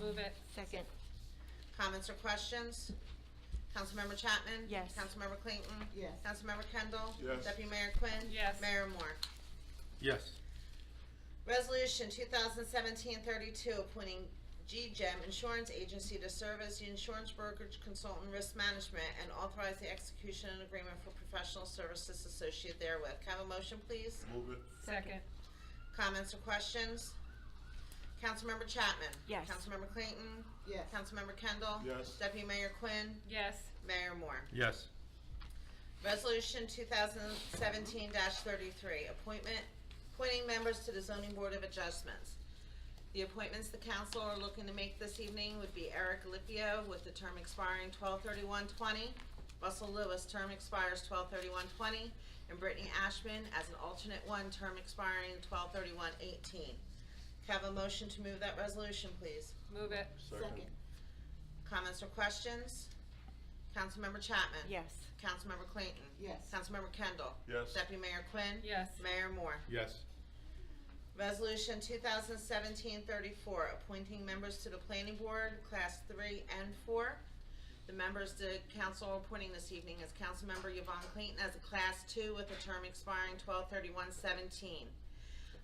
Move it. Second. Comments or questions? Councilmember Chapman? Yes. Councilmember Clayton? Yes. Councilmember Kendall? Yes. Deputy Mayor Quinn? Yes. Mayor Moore? Yes. Resolution 2017-32, appointing GGEM Insurance Agency to serve as the insurance brokerage consultant risk management and authorize the execution and agreement for professional services associated therewith. Can I have a motion, please? Move it. Second. Comments or questions? Councilmember Chapman? Yes. Councilmember Clayton? Yes. Councilmember Kendall? Yes. Deputy Mayor Quinn? Yes. Mayor Moore? Yes. Resolution 2017-33, appointment, appointing members to the Zoning Board of Adjustments. The appointments the council are looking to make this evening would be Eric Lipio with the term expiring 12/31/20, Russell Lewis, term expires 12/31/20, and Brittany Ashman as an alternate one, term expiring 12/31/18. Can I have a motion to move that resolution, please? Move it. Second. Comments or questions? Councilmember Chapman? Yes. Councilmember Clayton? Yes. Councilmember Kendall? Yes. Deputy Mayor Quinn? Yes. Mayor Moore? Yes. Resolution 2017-34, appointing members to the Planning Board, Class 3 and 4. The members the council are appointing this evening is Councilmember Yvonne Clayton as a Class 2 with a term expiring 12/31/17.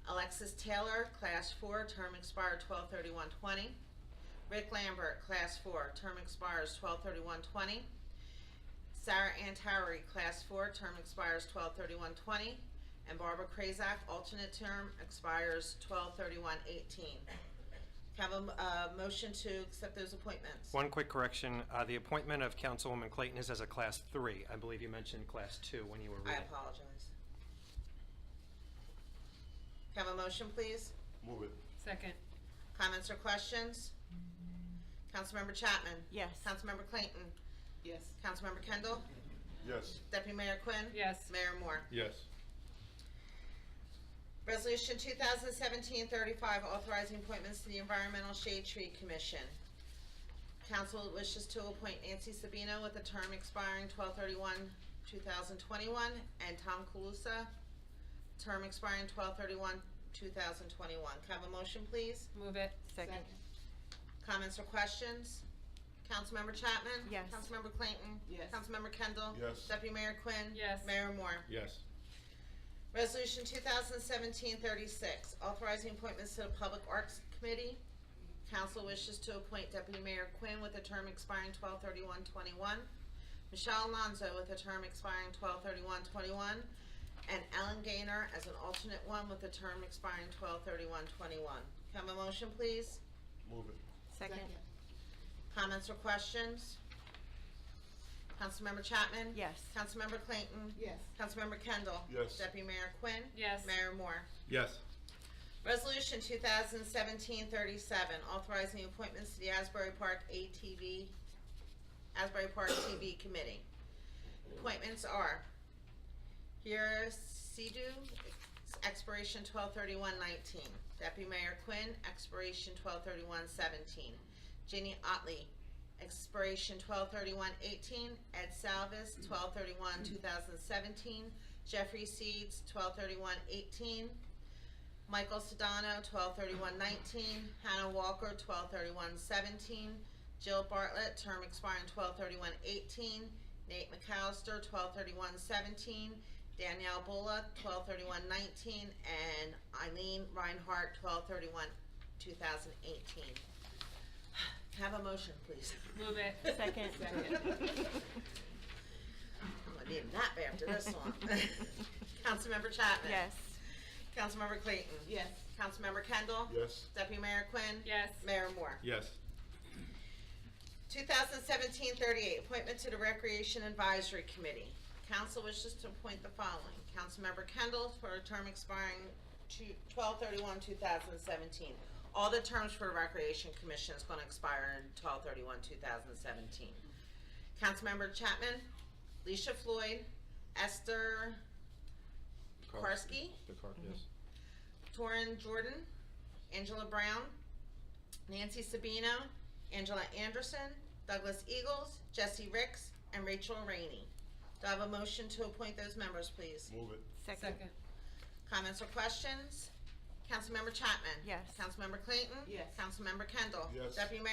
Alexis Taylor, Class 4, term expired 12/31/20. Rick Lambert, Class 4, term expires 12/31/20. Sarah Antari, Class 4, term expires 12/31/20. And Barbara Krazak, alternate term, expires 12/31/18. Have a, m- uh motion to accept those appointments? One quick correction, uh, the appointment of Councilwoman Clayton is as a Class 3. I believe you mentioned Class 2 when you were I reading. apologize. Have a motion, please? Move it. Second. Comments or questions? Councilmember Chapman? Yes. Councilmember Clayton? Yes. Councilmember Kendall? Yes. Deputy Mayor Quinn? Yes. Mayor Moore? Yes. Resolution 2017-35, authorizing appointments to the Environmental Shade Tree Commission. Council wishes to appoint Nancy Sabino with a term expiring 12/31/2021, and Tom Kalusa, term expiring 12/31/2021. Can I have a motion, please? Move it. Second. Comments or questions? Councilmember Chapman? Yes. Councilmember Clayton? Yes. Councilmember Kendall? Yes. Deputy Mayor Quinn? Yes. Mayor Moore? Yes. Resolution 2017-36, authorizing appointments to the Public Arts Committee. Council wishes to appoint Deputy Mayor Quinn with a term expiring 12/31/21, Michelle Alonso with a term expiring 12/31/21, and Ellen Gaynor as an alternate one with a term expiring 12/31/21. Can I have a motion, please? Move it. Second. Comments or questions? Councilmember Chapman? Yes. Councilmember Clayton? Yes. Councilmember Kendall? Yes. Deputy Mayor Quinn? Yes. Mayor Moore? Yes. Resolution 2017-37, authorizing appointments to the Asbury Park ATV, Asbury Park TV Committee. Appointments are Hira Sidhu, expiration 12/31/19. Deputy Mayor Quinn, expiration 12/31/17. Ginny Otley, expiration 12/31/18. Ed Salvis, 12/31/2017. Jeffrey Seeds, 12/31/18. Michael Sedano, twelve thirty-one nineteen, Hannah Walker, twelve thirty-one seventeen, Jill Bartlett, term expiring twelve thirty-one eighteen, Nate McAllister, twelve thirty-one seventeen, Danielle Bulla, twelve thirty-one nineteen, and Eileen Reinhardt, twelve thirty-one two thousand eighteen. Have a motion, please. Move it. Second. I'm gonna need a nap after this one. Councilmember Chapman. Yes. Councilmember Clayton. Yes. Councilmember Kendall. Yes. Deputy Mayor Quinn. Yes. Mayor Moore. Yes. 2017-38, appointment to the Recreation Advisory Committee. Council wishes to appoint the following. Councilmember Kendall for a term expiring to- 12/31/2017. All the terms for the Recreation Commission is going to expire in 12/31/2017. Councilmember Chapman, Leisha Floyd, Esther Karski, The car, yes. Torin Jordan, Angela Brown, Nancy Sabino, Angela Anderson, Douglas Eagles, Jesse Ricks, and Rachel Rainey. Do I have a motion to appoint those members, please? Move it. Second. Second. Comments or questions? Councilmember Chapman? Yes. Councilmember Clayton? Yes. Councilmember Kendall? Yes. Deputy Mayor